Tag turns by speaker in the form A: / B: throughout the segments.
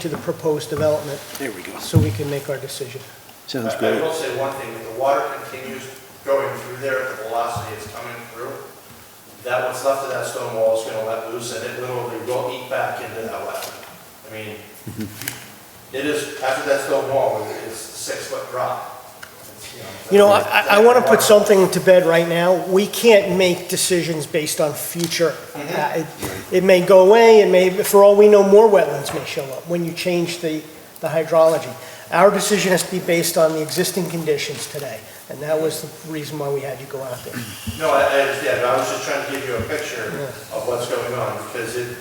A: to the proposed development
B: There we go.
A: so we can make our decision.
B: Sounds
C: I- I
B: good.
C: will say one thing, if the water continues going through there at the velocity it's coming through, that what's left of that stone wall is gonna let loose and it literally will eat back into that wetland. I mean, it is, after that stone wall, it's a six-foot drop. It's,
A: You know, I, I want to put
C: that-
A: something to bed right now. We can't make decisions based on future. Uh, It it may go away, it may, for all we know, more wetlands may show up when you change the, the hydrology. Our decision has to be based on the existing conditions today, and that was the reason why we had you go out there.
C: No, I, I understand, but I was just trying to give you a picture of what's going on, because it,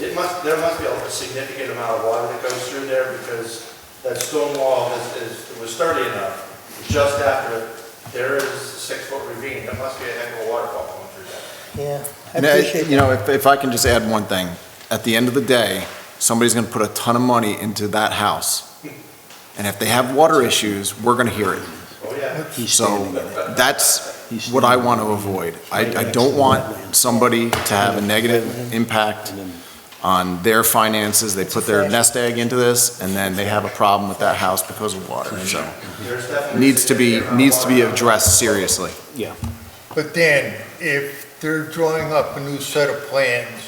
C: it must, there must be a significant amount of water that goes through there, because that stone wall is, is, it was sturdy enough, just after, there is a six-foot ravine, there must be a heck of a waterfall coming through there.
A: Yeah, I
D: And I-
A: appreciate
D: You
A: that.
D: know, if, if I can just add one thing, at the end of the day, somebody's gonna put a ton of money into that house. And if they have water issues, we're gonna hear it.
C: Oh, yeah.
B: He's
D: So
B: standing in it.
D: that's what I want to avoid. I, I don't want somebody to have a negative impact
B: And then-
D: on their finances. They put their nest egg into this and then they have a problem with that house because of water. So
C: There's definitely.
D: needs to be,
C: significant amount of
D: needs to be
C: water.
D: addressed seriously.
E: But Dan, if they're drawing up a new set of plans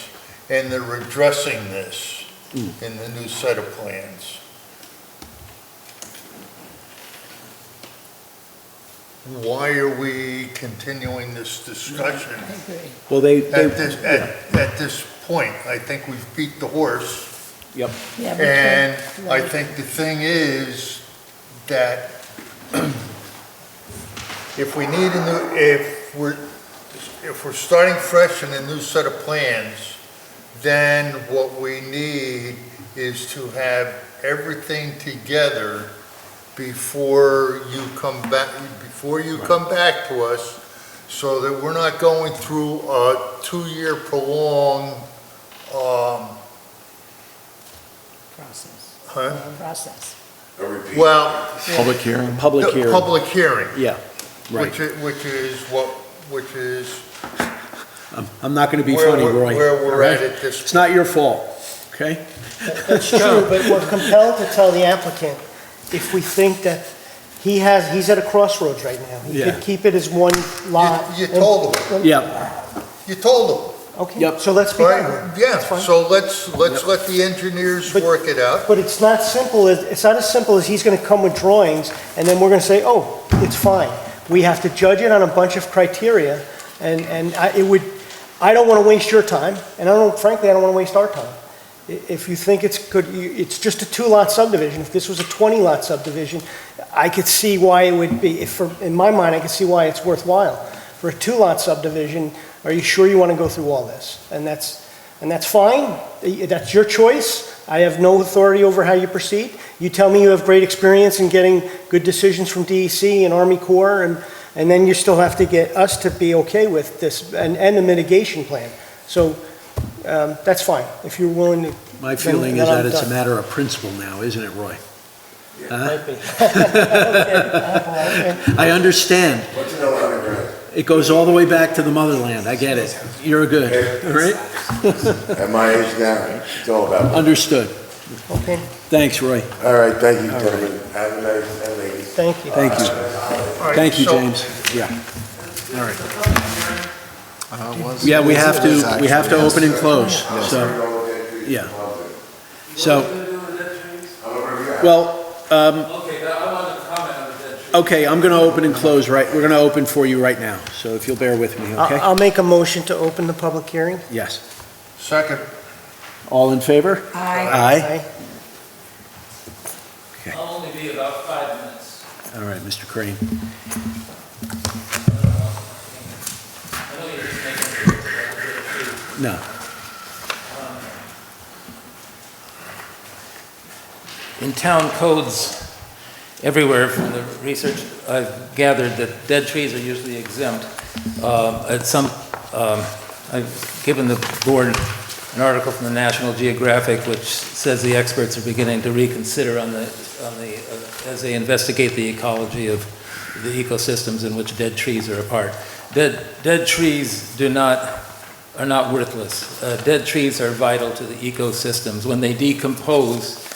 E: and they're addressing this in the new set of plans, why are we continuing this discussion
B: Well, they, they,
E: at this, at, at this point? I think we've beat the horse.
F: Yeah, we
E: And
F: can't-
E: I think the thing is that if we need a new, if we're, if we're starting fresh in a new set of plans, then what we need is to have everything together before you come back, before you come back to us, so that we're not going through a two-year prolonged, um,
F: Process,
E: huh?
F: long process.
E: well,
D: Public hearing?
B: public
E: The
B: hearing,
E: Public hearing,
B: yeah, right.
E: which is, which is what, which is
B: I'm not gonna be
E: where
B: funny,
E: we're,
B: Roy.
E: where
B: all
E: we're
B: right?
E: at at this.
B: It's not your fault, okay?
A: That's true, but we're compelled to tell the applicant if we think that he has, he's at a crossroads right now. He
B: Yeah.
A: could keep it as one lot.
E: You- you told
A: him.
B: Yeah,
E: You told them,
A: Okay,
B: Yep.
A: so let's be done with it.
E: right? Yeah,
A: That's fine.
E: so let's, let's let the engineers
A: But-
E: work it out.
A: But it's not simple, as it's not as simple as he's gonna come with drawings, and then we're gonna say, oh, it's fine. We have to judge it on a bunch of criteria, and, and I, it would, I don't wanna waste your time, and I don't, frankly, I don't wanna waste our time. I- If you think it's good, you- it's just a two-lot subdivision, if this was a twenty-lot subdivision, I could see why it would be, if, for- in my mind, I could see why it's worthwhile. For a two-lot subdivision, are you sure you wanna go through all this? And that's, and that's fine, that's your choice, I have no authority over how you proceed. You tell me you have great experience in getting good decisions from DEC and Army Corps, and, and then you still have to get us to be okay with this, and, and the mitigation plan. So, um, that's fine, if you're willing to.
B: my feeling
A: Then- then
B: is that
A: I'm
B: it's a
A: done.
B: matter of principle now, isn't it, Roy? Huh? I understand. It goes all the way back to the motherland, I get it. You're good, all right?
G: At my age now, it's all about.
B: Understood.
A: Okay,
B: Thanks, Roy.
G: All right, thank you, gentlemen. Have a nice, and ladies.
A: thank you.
B: Thank you.
E: All right,
B: Thank you,
E: so-
B: James. Yeah. All right. Yeah, we have to, we have to open and close, so, yeah. So, well, um,
H: Okay, but I wanted to comment on the dead tree.
B: okay, I'm gonna open and close right, we're gonna open for you right now, so if you'll bear with me,
A: I'll,
B: okay?
A: I'll make a motion to open the public hearing.
B: Yes.
E: Second,
B: All in favor?
F: I
B: Aye.
H: I'll only be about five minutes.
B: All right, Mr. Crane.
H: I know you're just making a joke about the
B: No.
H: dead tree. In town codes everywhere, from the research I've gathered, that dead trees are usually exempt. Um, At some, um, I've given the board an article from the National Geographic which says the experts are beginning to reconsider on the, on the, uh, as they investigate the ecology of the ecosystems in which dead trees are a part. Dead, dead trees do not, are not worthless. Uh, Dead trees are vital to the ecosystems. When they decompose,